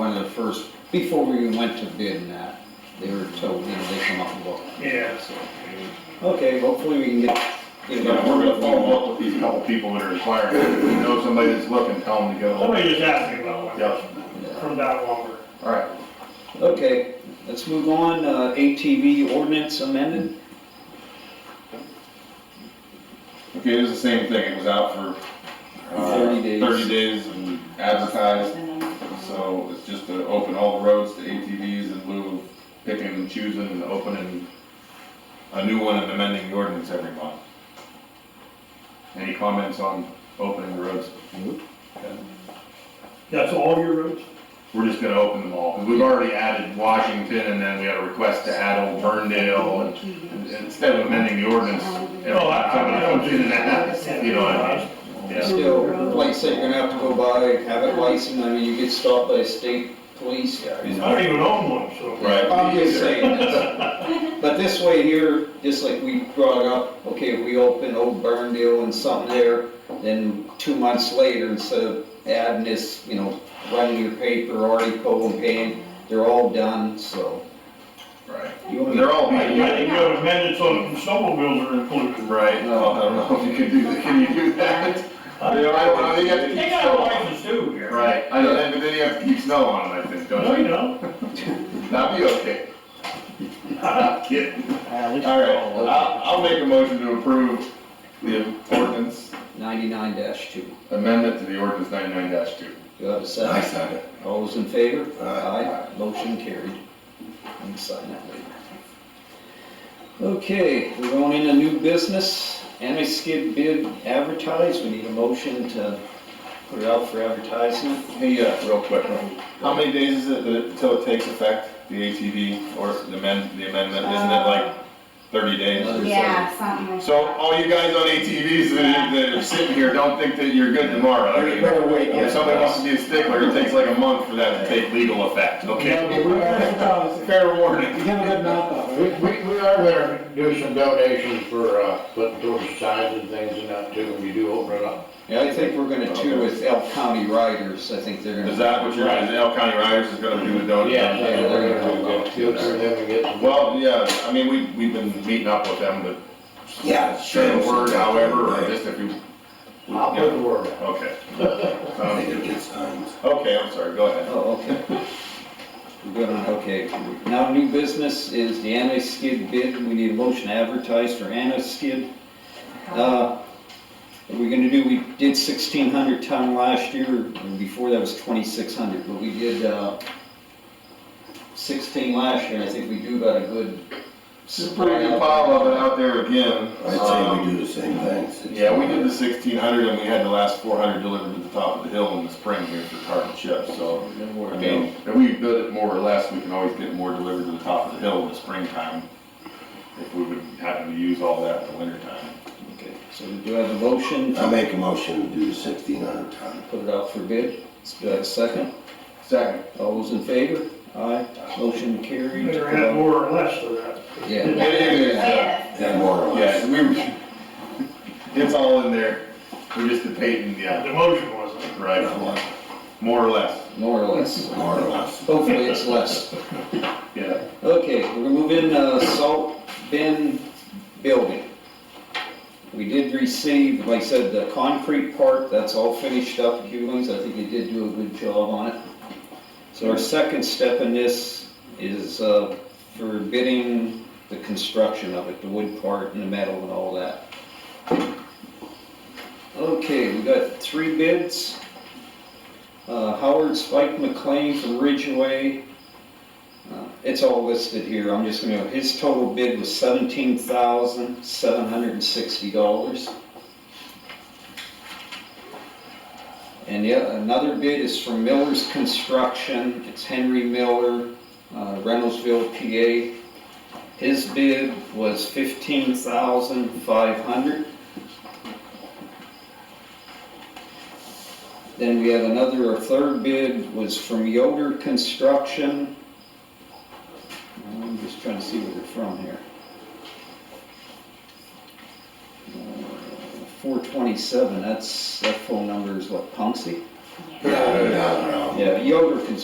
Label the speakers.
Speaker 1: first, before we even went to bid and that, they were told, you know, they come up and look.
Speaker 2: Yeah.
Speaker 1: So, Okay, hopefully we can get, get
Speaker 3: You
Speaker 1: it.
Speaker 3: know, we're gonna follow up with these couple people that are inquiring, if you know somebody that's looking, tell them to go.
Speaker 2: Somebody just asked me about one
Speaker 3: Yes,
Speaker 1: Yeah.
Speaker 2: from that lumber.
Speaker 3: alright,
Speaker 1: Okay, let's move on, uh, ATV ordinance amended,
Speaker 3: okay, it was the same thing, it was out for, uh,
Speaker 1: 30 days.
Speaker 3: Thirty days and advertised, so it's just to open all the roads to ATVs in lieu of picking and choosing and opening a new one and amending the ordinance every month. Any comments on opening the roads?
Speaker 2: That's all your roads?
Speaker 3: We're just gonna open them all, 'cause we've already added Washington, and then we had a request to add Old Burndale, and- and instead of amending the ordinance. every
Speaker 2: No, Oh, I-
Speaker 3: time
Speaker 2: I- I
Speaker 3: it
Speaker 2: don't
Speaker 3: comes
Speaker 2: do
Speaker 3: in and out, You know what I mean? Yeah,
Speaker 1: still, like I said, you're gonna have to go by, have it licensed, I mean, you get stopped by state police.
Speaker 3: He's
Speaker 2: I don't even own one, so.
Speaker 3: Right.
Speaker 1: I'm just saying this, but this way here, just like we brought up, okay, if we open Old Burndale and something there, then two months later, instead of adding this, you know, running your paper, article and paying, they're all done, so.
Speaker 3: Right,
Speaker 1: You want me-
Speaker 3: they're all,
Speaker 2: I think you
Speaker 3: right,
Speaker 2: have amended so the snowmobiles are included.
Speaker 3: Right. no, I don't know if you can do, that. can you do that? They are- I don't know, they have to
Speaker 2: They
Speaker 3: keep
Speaker 2: got a
Speaker 3: snow on.
Speaker 2: license too here.
Speaker 3: Right, I know, and then you have to keep snow on them, I think,
Speaker 2: No,
Speaker 3: don't
Speaker 2: you
Speaker 3: you?
Speaker 2: don't.
Speaker 3: That'd be okay. I'm kidding. All right, I'll, I'll make a motion to approve the ordinance,
Speaker 1: Ninety-nine two,
Speaker 3: amendment to the ordinance ninety-nine two.
Speaker 1: you have a second?
Speaker 3: second.
Speaker 1: All those in favor?
Speaker 3: Aye.
Speaker 1: Motion carried. You can sign that later. Okay, we're going into new business, anti-skid bid advertised, we need a motion to put it out for advertisement.
Speaker 3: Hey, uh, real quick, how many days is it that it- till it takes effect, the ATV or the amend, the amendment, isn't it like thirty days?
Speaker 4: Yeah, something like.
Speaker 3: So
Speaker 4: that.
Speaker 3: all you guys on ATVs that that are sitting here, don't think that you're good tomorrow. I mean,
Speaker 1: Better wait, yeah.
Speaker 3: If somebody wants to be a stickler, it takes like a month for that to take legal effect, okay?
Speaker 5: We are,
Speaker 3: Fair warning.
Speaker 1: You have a good mouth off.
Speaker 5: we, we we are gonna do some donations for, uh, putting towards signs and things and that too, when you do open it up.
Speaker 1: Yeah, I think we're gonna do with Elk County Riders, I think they're gonna.
Speaker 3: Is that what you're, is El County Riders is gonna do the donation?
Speaker 5: Yeah, we're gonna go through them and get some.
Speaker 3: Well, yeah, I mean, we, we've been meeting up with them, but.
Speaker 6: Yeah,
Speaker 3: Share the
Speaker 6: sure.
Speaker 3: word however, or just if you,
Speaker 5: I'll put the word out.
Speaker 3: okay. Um,
Speaker 6: I
Speaker 3: Sounds
Speaker 6: think it
Speaker 3: good.
Speaker 6: gets times.
Speaker 3: Okay, I'm sorry, go ahead.
Speaker 1: Oh, okay. We're good on, okay. Now, new business is the anti-skid bid. We need a motion to advertise for anti-skid. Uh, What we're gonna do, we did sixteen hundred ton last year, and before that was twenty-six hundred, but we did, uh, sixteen last year, and I think we do got a good.
Speaker 3: This is a pretty good pile of it out there again.
Speaker 6: I'd say we do the same things.
Speaker 3: Uh, Um, Yeah, we did the sixteen hundred and we had the last four hundred delivered to the top of the hill in the spring here for tartan chips, so.
Speaker 1: Don't
Speaker 3: I
Speaker 1: worry.
Speaker 3: mean, if we bid it more or less, we can always get more delivered to the top of the hill in the springtime. If we would happen to use all that in the wintertime.
Speaker 1: Okay, So we do have a motion
Speaker 6: I
Speaker 1: to
Speaker 6: make a motion to do the sixteen hundred ton.
Speaker 1: put it out for bid. Let's do that second.
Speaker 3: Second.
Speaker 1: All those in favor? Aye. Motion carried.
Speaker 2: Better have more or less of that.
Speaker 1: Yeah.
Speaker 4: Yes.
Speaker 6: Oh, Yeah, more or
Speaker 3: Yeah,
Speaker 6: less.
Speaker 3: we, it's all in there. We're just debating, yeah,
Speaker 2: The motion wasn't.
Speaker 3: right, more or less,
Speaker 1: More or less.
Speaker 6: More or less.
Speaker 1: Hopefully it's less.
Speaker 3: yeah.
Speaker 1: Okay, we're gonna move in, uh, salt bin building. We did receive, like I said, the concrete part, that's all finished up, Hewens, I think you did do a good job on it. So our second step in this is, uh, for bidding the construction of it, the wood part and the metal and all that. Okay, we got three bids. Uh, Howard Spike McLean from Ridgeway, uh, It's all listed here, I'm just gonna, his total bid was seventeen thousand, seven hundred and sixty dollars. And yet, another bid is from Miller's Construction, it's Henry Miller, uh, Reynoldsville, PA. His bid was fifteen thousand, five hundred. Then we have another, a third bid was from Yoder Construction, I'm just trying to see where they're from here. Uh, Four twenty-seven, that's, that phone number is what, Punksy?
Speaker 6: Yeah, I don't know.
Speaker 1: Yeah, Yoder Construction